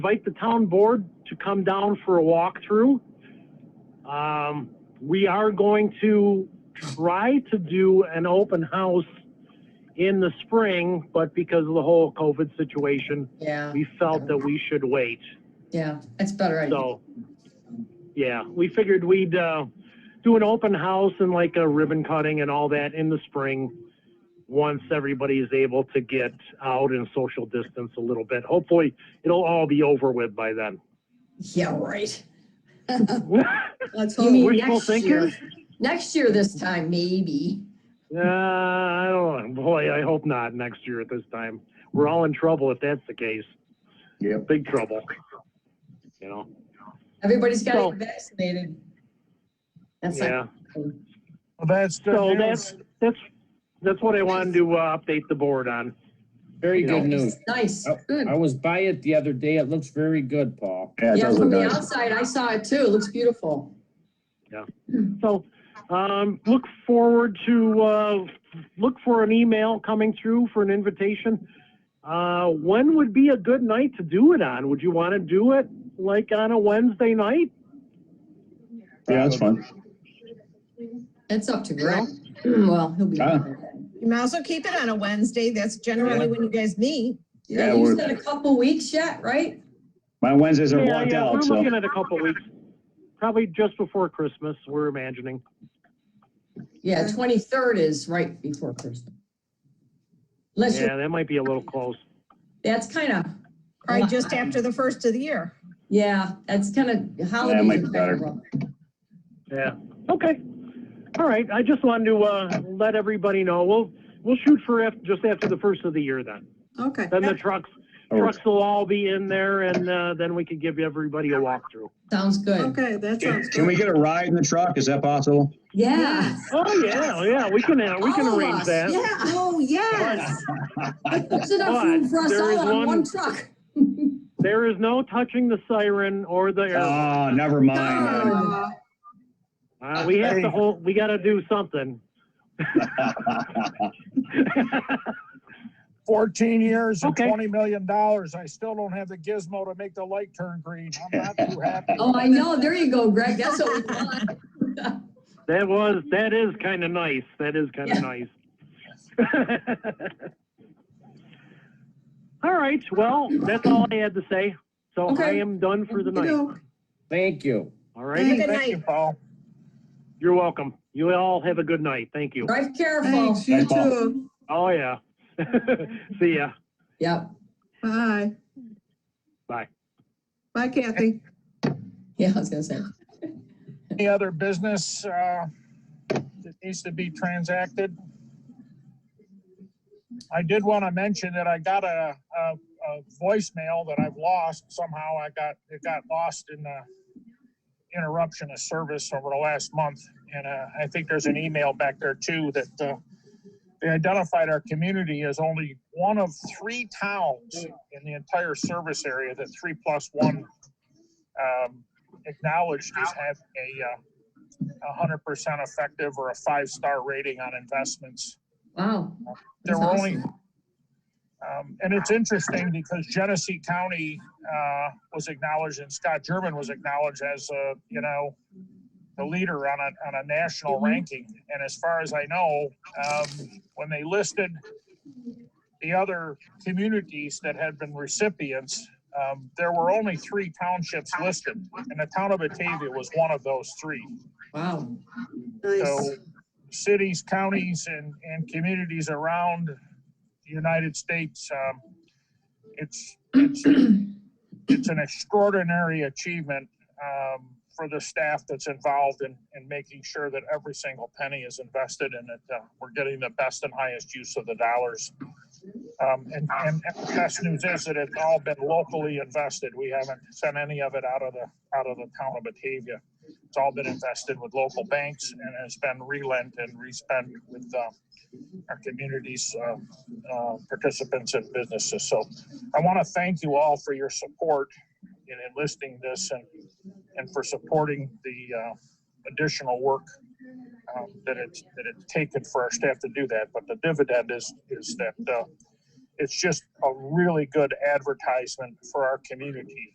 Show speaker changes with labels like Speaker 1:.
Speaker 1: invite the town board to come down for a walkthrough. Um, we are going to try to do an open house in the spring, but because of the whole COVID situation,
Speaker 2: Yeah,
Speaker 1: we felt that we should wait.
Speaker 2: yeah, it's better. I think.
Speaker 1: So, yeah, we figured we'd, uh, do an open house and like a ribbon cutting and all that in the spring. Once everybody's able to get out and social distance a little bit. Hopefully, it'll all be over with by then.
Speaker 2: Yeah, right.
Speaker 3: Let's
Speaker 2: You
Speaker 3: hope.
Speaker 2: mean
Speaker 1: Wishful
Speaker 2: next year?
Speaker 1: thinking?
Speaker 2: Next year this time, maybe.
Speaker 1: Uh, I don't know. Boy, I hope not next year at this time. We're all in trouble if that's the case.
Speaker 4: Yeah.
Speaker 1: Big trouble. You know,
Speaker 2: Everybody's got
Speaker 1: So-
Speaker 2: to get vaccinated. That's um, not,
Speaker 1: yeah.
Speaker 5: Well, that's
Speaker 1: So
Speaker 5: good
Speaker 1: that's,
Speaker 5: news.
Speaker 1: that's, that's what I wanted to, uh, update the board on.
Speaker 6: Very
Speaker 1: You
Speaker 6: good
Speaker 1: know.
Speaker 6: news.
Speaker 2: nice,
Speaker 6: Oh,
Speaker 2: good.
Speaker 6: I was by it the other day. It looks very good, Paul.
Speaker 4: Yeah, it
Speaker 2: Yeah,
Speaker 4: does
Speaker 2: from
Speaker 4: look
Speaker 2: the
Speaker 4: nice.
Speaker 2: outside, I saw it too. It looks beautiful.
Speaker 1: So, um, look forward to, uh, look for an email coming through for an invitation. Uh, when would be a good night to do it on? Would you want to do it like on a Wednesday night?
Speaker 4: Yeah, that's fun.
Speaker 2: It's up to Greg. Well, he'll be.
Speaker 4: Ah.
Speaker 2: there then.
Speaker 3: You might also keep it on a Wednesday. That's generally when you guys meet.
Speaker 4: Yeah,
Speaker 2: Yeah, you
Speaker 4: we're-
Speaker 2: said a couple weeks yet, right?
Speaker 4: My Wednesdays are
Speaker 1: Yeah,
Speaker 4: blocked
Speaker 1: yeah, we're
Speaker 4: out, so
Speaker 1: looking at a couple weeks, probably just before Christmas, we're imagining.
Speaker 2: Yeah, twenty-third is right before Christmas. Unless you're,
Speaker 1: Yeah, that might be a little close.
Speaker 2: that's kind of,
Speaker 3: Probably just after the first of the year.
Speaker 2: yeah, that's kind of holiday.
Speaker 4: might be better.
Speaker 1: Yeah, okay. All right, I just wanted to, uh, let everybody know, we'll, we'll shoot for af, just after the first of the year then.
Speaker 3: Okay.
Speaker 1: Then the trucks,
Speaker 4: or-
Speaker 1: trucks will all be in there and, uh, then we can give everybody a walkthrough.
Speaker 2: Sounds good.
Speaker 3: Okay, that sounds
Speaker 4: can we
Speaker 3: good.
Speaker 4: get a ride in the truck? Is that possible?
Speaker 2: Yeah.
Speaker 1: Oh, yeah, yeah, we can, uh, we can
Speaker 2: All of
Speaker 1: arrange
Speaker 2: us,
Speaker 1: that.
Speaker 2: Yeah.
Speaker 3: Oh, yes.
Speaker 2: There's enough room for us
Speaker 1: There is
Speaker 2: all on one
Speaker 1: one-
Speaker 2: truck.
Speaker 1: There is no touching the siren or the, air-
Speaker 4: Ah, never mind.
Speaker 3: Aw,
Speaker 1: uh, we have to hold, we gotta do something.
Speaker 5: Fourteen years and
Speaker 1: Okay.
Speaker 5: twenty million dollars. I still don't have the gizmo to make the light turn green. I'm not too happy.
Speaker 2: Oh, I know. There you go, Greg. That's what we want.
Speaker 1: That
Speaker 3: Mm-hmm.
Speaker 1: was, that is kind of nice. That is kind
Speaker 2: Yeah.
Speaker 1: of nice. All right, well, that's all I had to say. So I
Speaker 2: Okay.
Speaker 1: am done for the night.
Speaker 3: okey-doke.
Speaker 6: Thank you.
Speaker 1: All
Speaker 3: Thank
Speaker 1: right,
Speaker 3: you.
Speaker 5: Thank you, Paul.
Speaker 1: you're welcome. You all have a good night. Thank you.
Speaker 2: Drive careful.
Speaker 3: Thanks, you
Speaker 4: Thanks, Paul.
Speaker 3: too.
Speaker 1: Oh, yeah. See ya.
Speaker 2: Yep.
Speaker 3: Bye.
Speaker 1: Bye.
Speaker 3: Bye, Kathy.
Speaker 2: Yeah, I was gonna say.
Speaker 5: Any other business, uh, that needs to be transacted? I did want to mention that I got a, a, a voicemail that I've lost somehow. I got, it got lost in the interruption of service over the last month. And, uh, I think there's an email back there too that, uh, they identified our community as only one of three towns in the entire service area that three plus one, um, acknowledged as having a uh, a hundred percent effective or a five-star rating on investments.
Speaker 2: Wow.
Speaker 5: There
Speaker 2: That's
Speaker 5: were only,
Speaker 2: awesome.
Speaker 5: um, and it's interesting because Genesee County uh, was acknowledged and Scott German was acknowledged as, uh, you know, the leader on a, on a national
Speaker 2: Mhm.
Speaker 5: ranking. And as far as I know, um, when they listed the other communities that had been recipients, um, there were only three townships listed, and the town of Batavia was one of those three.
Speaker 2: Wow.
Speaker 3: Nice.
Speaker 5: So cities, counties, and, and communities around the United States, um, it's, it's, it's an extraordinary achievement, um, for the staff that's involved in, in making sure that every single penny is invested and that, uh, we're getting the best and highest use of the dollars. Um, and, and the best news is that it's all been locally invested. We haven't sent any of it out of the, out of the town of Batavia. It's all been invested with local banks and has been relent and respent with uh, our communities, uh, uh, participants and businesses. So I want to thank you all for your support in enlisting this and, and for supporting the uh, additional work um, that it's, that it's taken for our staff to do that. But the dividend is, is that uh, it's just a really good advertisement for our community